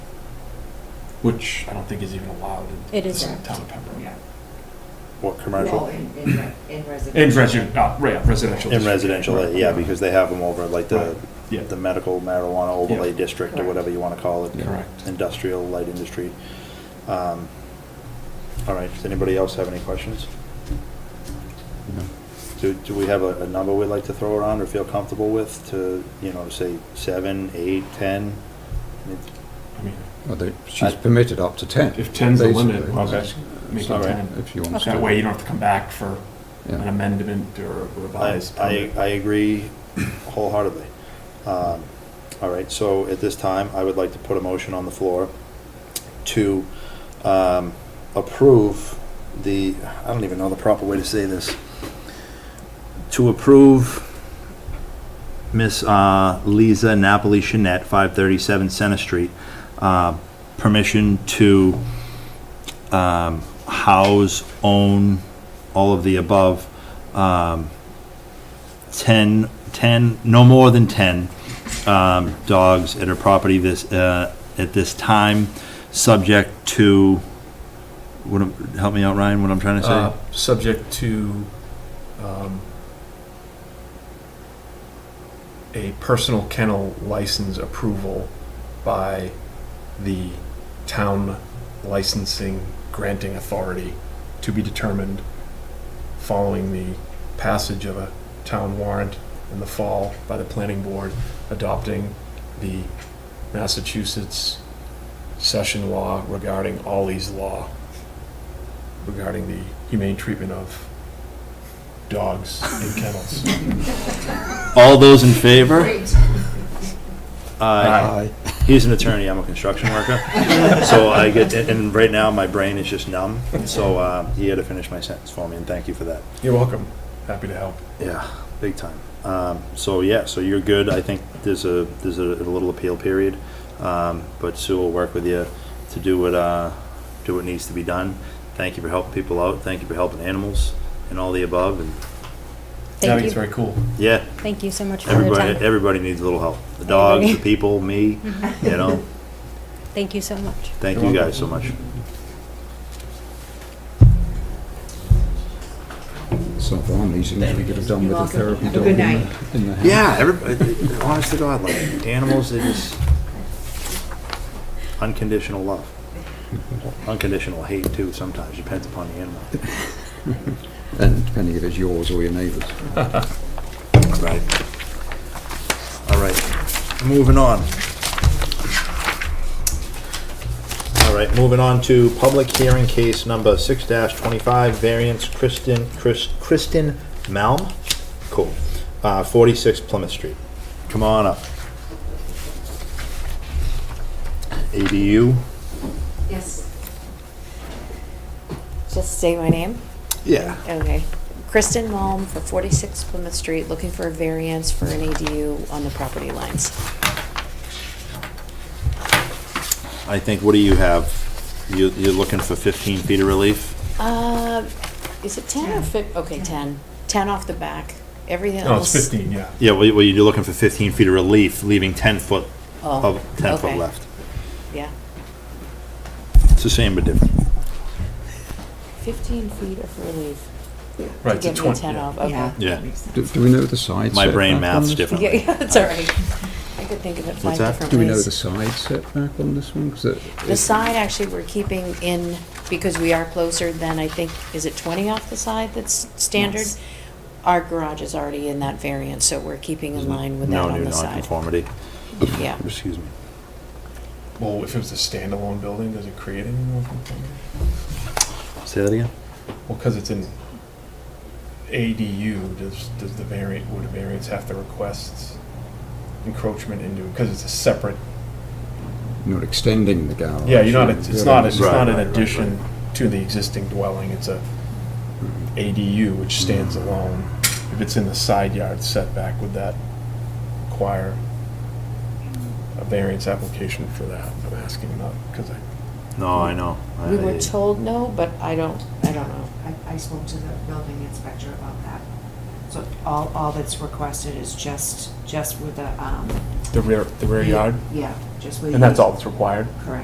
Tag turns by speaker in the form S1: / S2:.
S1: which I don't think is even allowed in
S2: It is
S1: the
S2: not.
S1: town of Pembroke.
S3: Yeah.
S4: What,
S3: Well,
S4: commercial?
S3: in, in re- in residential.
S1: In residential, uh, right, yeah, residential.
S4: In
S1: district.
S4: residential,
S1: Right,
S4: yeah,
S1: right.
S4: because they have them over like the,
S1: Right, yeah.
S4: the medical marijuana overlay
S1: Yeah.
S4: district or
S3: Correct.
S4: whatever you want to call it.
S1: Correct.
S4: Industrial, light industry. Um, All right, does anybody else have any questions? Do, do we have a, a number we'd like to throw around or feel comfortable with to, you know, say seven, eight, ten?
S1: I mean,
S5: Well, they, she's
S4: I-
S5: permitted up to 10.
S1: If 10's the limit,
S5: basically.
S1: well,
S4: Okay.
S1: make it
S4: All right.
S1: 10.
S5: If you want to.
S1: That way you don't have to come back for an
S5: Yeah.
S1: amendment or a
S4: I,
S1: revised
S4: I,
S1: permit.
S4: I agree wholeheartedly. Um, All right, so at this time, I would like to put a motion on the floor to um, approve the, I don't even know the proper way to say this, to approve Miss uh, Lisa Napoli Chanette, 537 Center Street, uh, permission to um, house, own, all of the above, um, 10, 10, no more than 10 um, dogs at her property this, uh, at this time, subject to, what, am- help me out, Ryan, what I'm trying to
S1: Uh,
S4: say?
S1: Subject to um, a personal kennel license approval by the town licensing granting authority to be determined following the passage of a town warrant in the fall by the planning board adopting the Massachusetts session law regarding Ollie's law regarding the humane treatment of dogs in kennels.
S4: All those in favor?
S3: Great.
S4: Aye. He's an attorney, I'm a construction worker. So I get, and- and right now, my brain is just numb, so uh, he had to finish my sentence for me, and thank you for that.
S1: You're welcome. Happy to help.
S4: Yeah, big time. Um, so yeah, so you're good. I think there's a there's a, a little appeal period, um, but Sue will work with you to do what uh, do what needs to be done. Thank you for helping people out. Thank you for helping animals and all the above. And
S1: I think
S2: Thank
S1: it's
S2: you,
S1: very cool.
S4: yeah,
S2: thank you so much for your
S4: everybody
S2: time.
S4: everybody needs a little help. The dogs, the people, me. You know.
S2: Thank you so much.
S4: Thank
S1: You're
S4: you
S1: welcome.
S4: guys so much.
S5: So one these things we could have done
S3: You're
S5: with a
S3: welcome.
S5: therapy
S3: Have a
S5: dog in
S3: good
S5: the, in the house.
S4: Yeah, everybody. honest to God, like animals, they just unconditional love, unconditional hate too. Sometimes depends upon the animal.
S5: And depending if it's yours or your neighbour's.
S4: Right. All right, moving on. All right, moving on to public hearing case number six twenty-five, variance Kristen, Chris, Kristen Malm. Cool. Uh, forty-six Plymouth Street. Come on up. ADU?
S3: Yes.
S6: Just say my name?
S4: Yeah.
S6: Okay. Kristen Malm for 46 Plymouth Street, looking for a variance for an ADU on the property lines.
S4: I think, what do you have? You, you're looking for fifteen feet of relief?
S6: Uh, Is it 10 or 15? Okay, 10. 10 off the back. Everything
S1: No, it's
S6: else.
S1: 15, yeah.
S4: Yeah, well, you- well, you're looking for 15 feet of relief, leaving 10 foot,
S6: Oh,
S4: of 10 foot
S6: okay.
S4: left.
S6: Yeah.
S4: It's the same but different.
S6: 15 feet of relief.
S1: Right, it's
S6: To
S1: a
S6: give me
S1: 20.
S6: 10
S1: yeah.
S6: off, okay.
S4: Yeah.
S5: Do, do we know the side
S4: My brain
S5: setback on
S4: maths
S5: this?
S4: different.
S6: Yeah, yeah, that's all right. I could think of it five
S4: that?
S6: different ways.
S5: Do we know the side setback on this one? 'Cause it-
S6: The
S5: it-
S6: side, actually, we're keeping in, because we are closer than, I think, is it 20 off the side that's standard?
S3: Yes.
S6: Our garage is already in that variance, so we're keeping in line with that
S4: Mm-hmm. No
S6: on
S4: new
S6: the side.
S4: nonconformity.
S6: Yeah.
S4: Excuse me.
S1: Well, if it was a standalone building, does it create any more conformity?
S4: Say that again?
S1: Well, because it's an ADU, does, does the variant, would a variance have to request encroachment into, because it's a separate,
S5: Not extending the garage.
S1: yeah, you're not,
S5: or
S1: it's it's not, it's
S4: Right,
S1: not an
S4: right, right,
S1: addition to the existing dwelling, it's a ADU which stands alone. If it's in the side yard setback, would that require a variance application for that? I'm asking not, because I,
S4: No, I know.
S6: We
S4: I-
S6: were told no, but I don't, I don't know.
S3: I, I spoke to the building inspector about that. So all, all that's requested is just, just with the, um.
S1: the rear, the rear yard,
S3: Yeah, just with.
S1: and that's
S3: the-
S1: all that's required?
S3: Correct.